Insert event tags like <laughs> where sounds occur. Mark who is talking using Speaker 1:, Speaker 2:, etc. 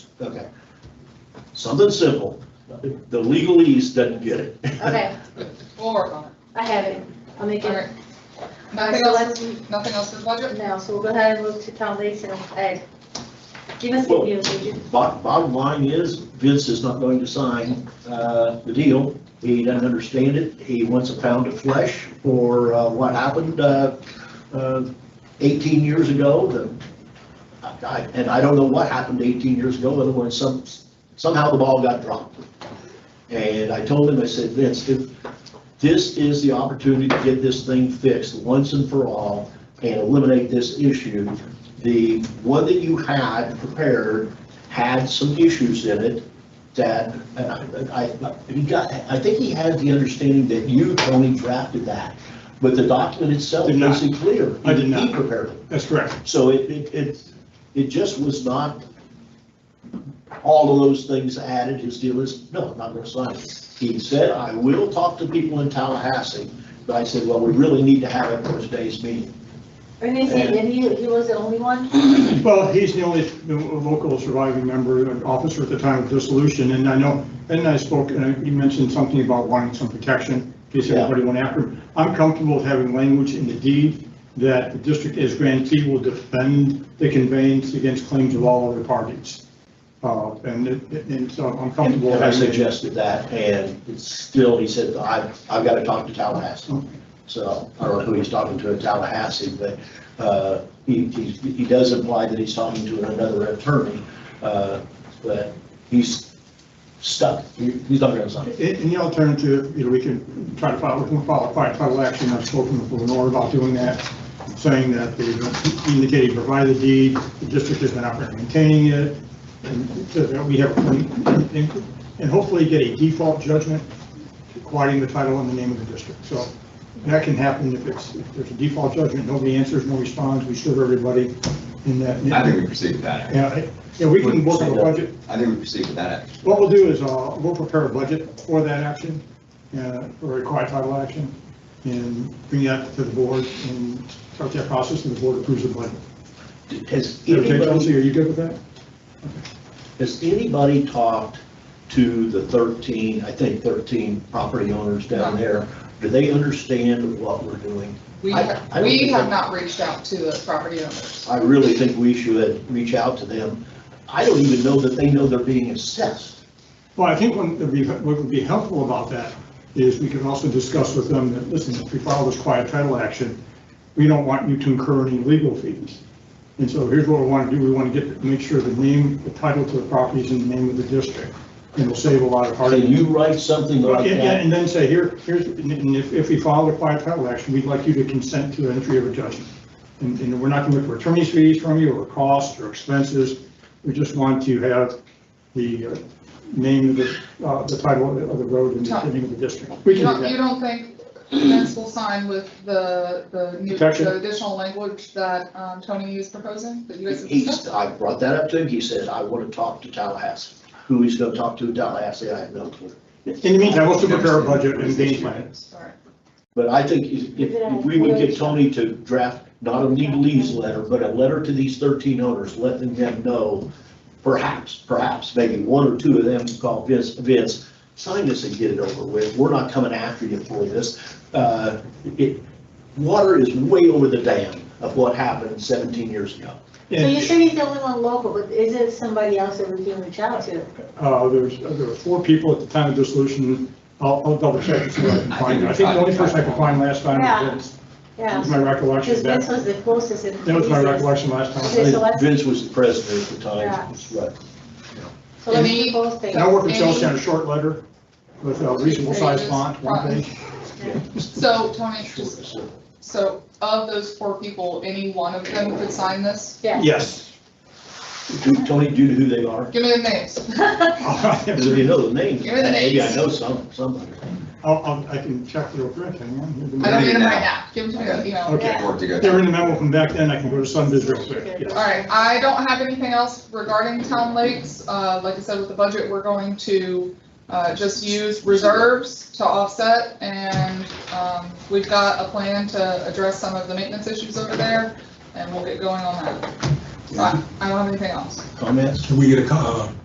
Speaker 1: Okay,
Speaker 2: Something simple. The legalese doesn't get it.
Speaker 3: Okay,
Speaker 4: We'll on
Speaker 3: I have it. I'll make
Speaker 4: it. All right.
Speaker 3: it.
Speaker 4: Nothing
Speaker 3: All right, so
Speaker 4: else, nothing else with budget?
Speaker 3: No, so we'll go ahead and move to foundational aid. Give us the
Speaker 2: Well-
Speaker 3: deal, would you?
Speaker 2: <laughs> Bo- Bottom line is Vince is not going to sign uh, the deal. He doesn't understand it. He wants a pound of flesh for uh, what happened uh, uh, 18 years ago. The- I- I- And I don't know what happened 18 years ago, other than some, somehow the ball got dropped. And I told him, I said, Vince, if this is the opportunity to get this thing fixed once and for all and eliminate this issue. The one that you had prepared had some issues in it that, and I, I, he got, I think he had the understanding that you, Tony, drafted that, but the document itself
Speaker 5: Did not.
Speaker 2: isn't clear.
Speaker 5: I did not.
Speaker 2: He prepared it.
Speaker 5: That's correct.
Speaker 2: So it, it, it, it just was not, all of those things added, his deal is, no, I'm not gonna sign it. He said, I will talk to people in Tallahassee, but I said, well, we really need to have it for today's meeting.
Speaker 3: And he said,
Speaker 2: And-
Speaker 3: and he, he was the only one?
Speaker 5: Well, he's the only local surviving member, an officer at the time of dissolution, and I know, and I spoke, and you mentioned something about wanting some protection, in case
Speaker 2: Yeah.
Speaker 5: anybody went after him. I'm comfortable with having language in the deed that the district as grantee will defend the conveyance against claims of all other parties. Uh, And, it- and so I'm
Speaker 2: And
Speaker 5: comfortable.
Speaker 2: I
Speaker 5: having-
Speaker 2: suggested that, and it's still, he said, I, I've gotta talk to Tallahassee. So, I don't know who he's talking to in Tallahassee, but, uh, he, he, he does imply that he's talking to another attorney, uh, but he's stuck, he, he's not gonna sign.
Speaker 5: In in the alternative, you know, we can try to file, we can file a quiet title action, I've spoken with Lenore about doing that, saying that they indicated provide the deed, the district has been out there maintaining it, and so that we have, and hopefully get a default judgment quieting the title in the name of the district. So that can happen if it's, if there's a default judgment, nobody answers, no responds, we serve everybody in
Speaker 6: I think
Speaker 5: that.
Speaker 6: we proceed with that.
Speaker 5: Yeah, I- yeah, we can work on the budget,
Speaker 6: I think we proceed with that.
Speaker 5: what we'll do is, uh, we'll prepare a budget for that action, uh, for a quiet title action, and bring that to the board and start that process, and the board approves the budget.
Speaker 2: Has
Speaker 5: Okay,
Speaker 2: anybody
Speaker 5: Chelsea, are you good with that?
Speaker 2: Has anybody talked to the 13, I think 13 property owners down there? Do they understand what we're doing?
Speaker 4: We,
Speaker 2: I-
Speaker 4: have-
Speaker 2: I don't
Speaker 4: we
Speaker 2: think
Speaker 4: have
Speaker 2: I-
Speaker 4: not reached out to the property owners.
Speaker 2: I really think we should reach out to them. I don't even know that they know they're being assessed.
Speaker 5: Well, I think one- that we- what would be helpful about that is we can also discuss with them that, listen, if we file this quiet title action, we don't want you to incur any legal fees. And so here's what we want to do, we want to get, make sure the name, the title to the property is in the name of the district, and it'll save a lot of heartache.
Speaker 2: Can you write something
Speaker 5: Well,
Speaker 2: like
Speaker 5: And
Speaker 2: that?
Speaker 5: and then say, here, here's, and- and if, if we file a quiet title action, we'd like you to consent to entry of a judgment. And, and we're not going to look for attorney's fees from you, or costs, or expenses. We just want to have the uh, name of the, uh, the title of the road and the name of the district. We
Speaker 4: You don't,
Speaker 5: can do
Speaker 4: you
Speaker 5: that.
Speaker 4: don't think Vince will sign with the, the new,
Speaker 5: Protection?
Speaker 4: the additional language that, um, Tony is proposing, that you guys have discussed?
Speaker 2: He's, I brought that up to him. He says, I want to talk to Tallahassee. Who he's going to talk to in Tallahassee, I have no clue.
Speaker 5: In the meantime, we'll still prepare a budget and game plan.
Speaker 4: All right.
Speaker 2: But I think if, if if we would get Tony to draft not a legalese letter, but a letter to these thirteen owners, letting them know, perhaps, perhaps, maybe one or two of them can call Vince, Vince, sign this and get it over with. We're not coming after you for this. Uh, it, water is way over the dam of what happened seventeen years ago.
Speaker 3: So you
Speaker 5: And,
Speaker 3: said he's the only one local, but is it somebody else that we can reach out to?
Speaker 5: uh, there was, there were four people at the time of dissolution. I'll, I'll double check and see what I can
Speaker 6: I
Speaker 5: find.
Speaker 6: think
Speaker 5: I think the
Speaker 6: we
Speaker 5: only
Speaker 6: tried-
Speaker 5: person I could find last time
Speaker 3: Yeah.
Speaker 5: was Vince. That
Speaker 3: Yeah,
Speaker 5: was my recollection.
Speaker 3: because
Speaker 5: of that.
Speaker 3: this was the closest. and
Speaker 5: That was my
Speaker 3: easiest.
Speaker 5: recollection last time.
Speaker 3: Okay, so let's-
Speaker 2: Vince was the president at the time, that's right.
Speaker 3: So let me post it.
Speaker 5: And I work with Chelsea on a short letter with a reasonable size font, one page.
Speaker 4: <laughs> So Tony, just, so of those four people, any one of them could sign this?
Speaker 3: Yeah.
Speaker 5: Yes.
Speaker 2: Do- Tony, do you know who they are?
Speaker 4: Give me the names.
Speaker 2: Because if you know the name,
Speaker 4: Give me the
Speaker 2: maybe I
Speaker 4: names.
Speaker 2: know some, somebody.
Speaker 5: I'll, I'll, I can check real quick, hang on.
Speaker 4: I don't need them right
Speaker 6: Yeah.
Speaker 4: now, give them to me,
Speaker 6: Okay.
Speaker 4: you know.
Speaker 3: Yeah.
Speaker 6: Okay, work to go.
Speaker 5: They're in the memo from back then, I can go to Sunbiz real quick, yes.
Speaker 4: All right, I don't have anything else regarding town lakes. Uh, like I said, with the budget, we're going to, uh, just use reserves to offset. And, um, we've got a plan to address some of the maintenance issues over there and we'll get going on that. So I I don't have anything else.
Speaker 2: Comments?
Speaker 7: Can we get a, co- uh,